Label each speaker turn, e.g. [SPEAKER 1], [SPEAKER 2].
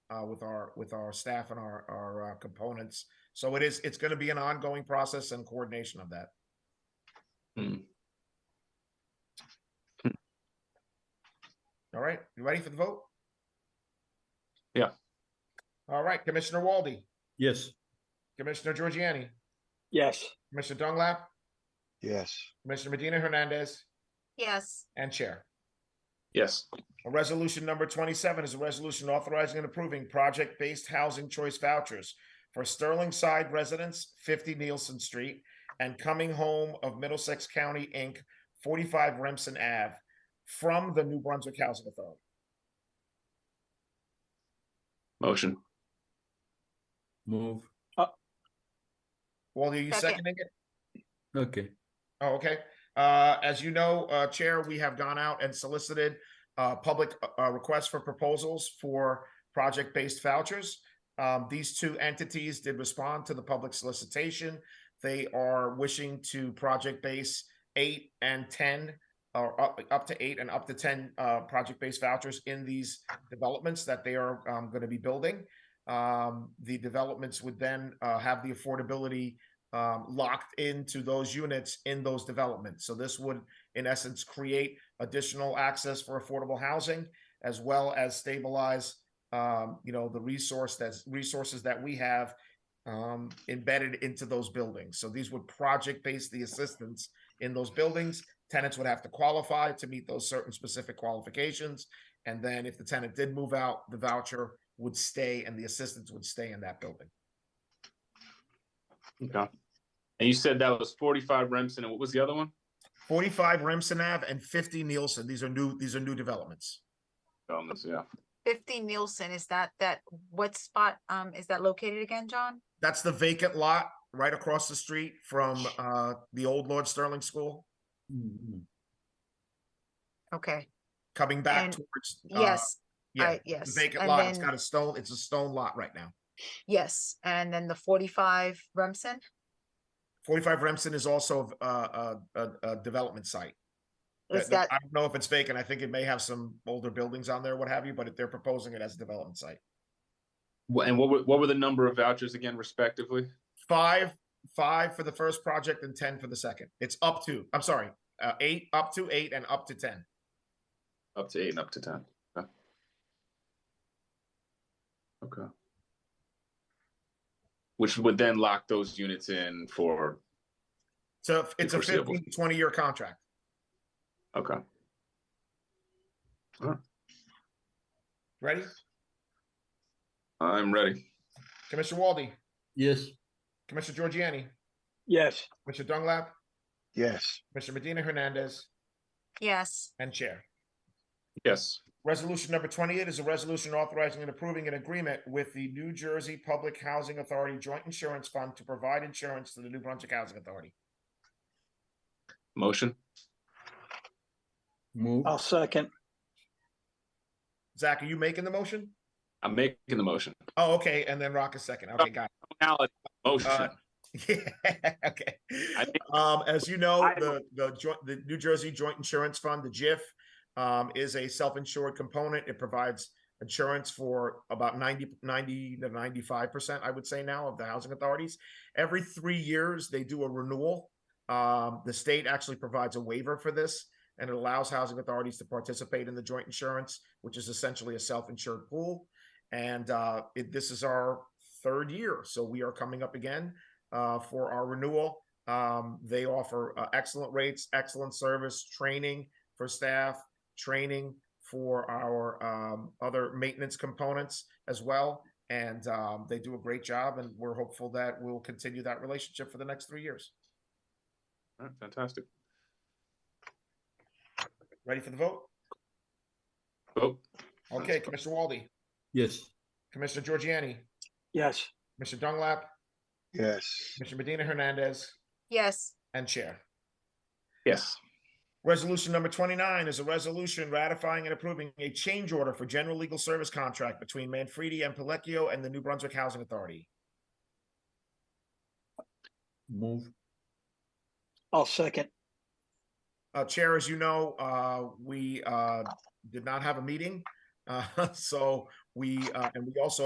[SPEAKER 1] uh, with our with our staff and our our uh, components. So it is it's going to be an ongoing process and coordination of that.
[SPEAKER 2] Hmm.
[SPEAKER 1] All right, you ready for the vote?
[SPEAKER 2] Yeah.
[SPEAKER 1] All right, Commissioner Walde,
[SPEAKER 3] Yes.
[SPEAKER 1] Commissioner Giorgiani,
[SPEAKER 4] Yes.
[SPEAKER 1] Commissioner Donglap,
[SPEAKER 5] yes,
[SPEAKER 1] Commissioner Medina Hernandez,
[SPEAKER 6] yes,
[SPEAKER 1] and Chair.
[SPEAKER 2] Yes.
[SPEAKER 1] Resolution number twenty-seven is a resolution authorizing and approving project-based housing choice vouchers for Sterling Side residents, fifty Nielsen Street, and Coming Home of Middlesex County, Inc., forty-five Remsen Ave, from the New Brunswick Housing Authority.
[SPEAKER 2] Motion.
[SPEAKER 3] Move.
[SPEAKER 1] Well, are you
[SPEAKER 6] Second.
[SPEAKER 1] seconding it?
[SPEAKER 3] Okay.
[SPEAKER 1] Oh, okay. Uh, as you know, uh, Chair, we have gone out and solicited, uh, public, uh, requests for proposals for project-based vouchers. Um, these two entities did respond to the public solicitation. They are wishing to project base eight and ten, or up, up to eight and up to ten, uh, project-based vouchers in these developments that they are, um, gonna be building. Um, the developments would then, uh, have the affordability, um, locked into those units in those developments. So this would, in essence, create additional access for affordable housing as well as stabilize, um, you know, the resource that's resources that we have um, embedded into those buildings. So these would project base the assistance in those buildings. Tenants would have to qualify to meet those certain specific qualifications. And then if the tenant did move out, the voucher would stay and the assistance would stay in that building.
[SPEAKER 2] Okay. And you said that was forty-five Remsen, and what was the other one?
[SPEAKER 1] 45 Remsen Ave and 50 Nielsen. These are new, these are new developments.
[SPEAKER 2] Um, that's- yeah.
[SPEAKER 6] fifty Nielsen, is that, that, what spot, um, is that located again, John?
[SPEAKER 1] That's the vacant lot right across the street from uh the old Lord Sterling School,
[SPEAKER 6] Mm-hmm.
[SPEAKER 3] Mm,
[SPEAKER 6] Okay,
[SPEAKER 1] coming back
[SPEAKER 6] And-
[SPEAKER 1] towards. uh,
[SPEAKER 6] yes,
[SPEAKER 1] Yeah,
[SPEAKER 6] I, yes.
[SPEAKER 1] the vacant
[SPEAKER 6] and
[SPEAKER 1] lot. It's
[SPEAKER 6] then-
[SPEAKER 1] got a stone, it's a stone lot right now.
[SPEAKER 6] Yes, and then the forty-five Remsen,
[SPEAKER 1] Forty-five Remsen is also uh, a, a, a development site.
[SPEAKER 6] is
[SPEAKER 1] That-
[SPEAKER 6] that,
[SPEAKER 1] I don't know if it's vacant. I think it may have some older buildings on there, what have you, but they're proposing it as a development site.
[SPEAKER 2] Wha- And what were, what were the number of vouchers again respectively?
[SPEAKER 1] Five, five for the first project and ten for the second. It's up to, I'm sorry, uh, eight, up to eight and up to ten.
[SPEAKER 2] Up to eight and up to ten. Okay. Okay. Which would then lock those units in for,
[SPEAKER 1] So it's a
[SPEAKER 2] Foreseeable.
[SPEAKER 1] 15 to 20 year contract.
[SPEAKER 2] okay,
[SPEAKER 1] Ready?
[SPEAKER 2] I'm ready.
[SPEAKER 1] Commissioner Walde,
[SPEAKER 3] Yes.
[SPEAKER 1] Commissioner Giorgiani,
[SPEAKER 4] Yes.
[SPEAKER 1] Commissioner Dunglap,
[SPEAKER 5] yes,
[SPEAKER 1] Commissioner Medina Hernandez,
[SPEAKER 6] yes,
[SPEAKER 1] and Chair.
[SPEAKER 2] Yes.
[SPEAKER 1] Resolution number twenty-eight is a resolution authorizing and approving an agreement with the New Jersey Public Housing Authority Joint Insurance Fund to provide insurance to the New Brunswick Housing Authority.
[SPEAKER 2] Motion.
[SPEAKER 3] Move.
[SPEAKER 4] I'll second.
[SPEAKER 1] Zach, are you making the motion?
[SPEAKER 2] I'm making the motion.
[SPEAKER 1] Oh, okay, and then Rock is second. Okay, got
[SPEAKER 2] Alex, Motion.
[SPEAKER 1] Uh, it. Yeah, okay.
[SPEAKER 2] I think
[SPEAKER 1] Um, as you know,
[SPEAKER 2] I-
[SPEAKER 1] the, the joint, the New Jersey Joint Insurance Fund, the JIF, um, is a self-insured component. It provides insurance for about 90, 90 to ninety-five percent, I would say now, of the housing authorities. Every three years, they do a renewal. Um, the state actually provides a waiver for this, and it allows housing authorities to participate in the joint insurance, which is essentially a self-insured pool. And, uh, it, this is our third year, so we are coming up again, uh, for our renewal. Um, they offer uh, excellent rates, excellent service, training for staff, training for our um, other maintenance components as well. And um, they do a great job, and we're hopeful that we'll continue that relationship for the next three years.
[SPEAKER 2] All right, Fantastic.
[SPEAKER 1] Ready for the vote?
[SPEAKER 2] Vote.
[SPEAKER 1] Okay, Commissioner Walde,
[SPEAKER 3] Yes.
[SPEAKER 1] Commissioner Giorgiani,
[SPEAKER 4] Yes.
[SPEAKER 1] Mr. Dunglap,
[SPEAKER 5] yes,
[SPEAKER 1] Mr. Medina Hernandez,
[SPEAKER 6] yes,
[SPEAKER 1] and Chair.
[SPEAKER 2] Yes.
[SPEAKER 1] Resolution number twenty-nine is a resolution ratifying and approving a change order for general legal service contract between Manfredi and Pellecchio and the New Brunswick Housing Authority.
[SPEAKER 3] Move.
[SPEAKER 4] I'll second.
[SPEAKER 1] Uh, Chair, as you know, uh, we, uh, did not have a meeting. Uh, so we, uh, and we also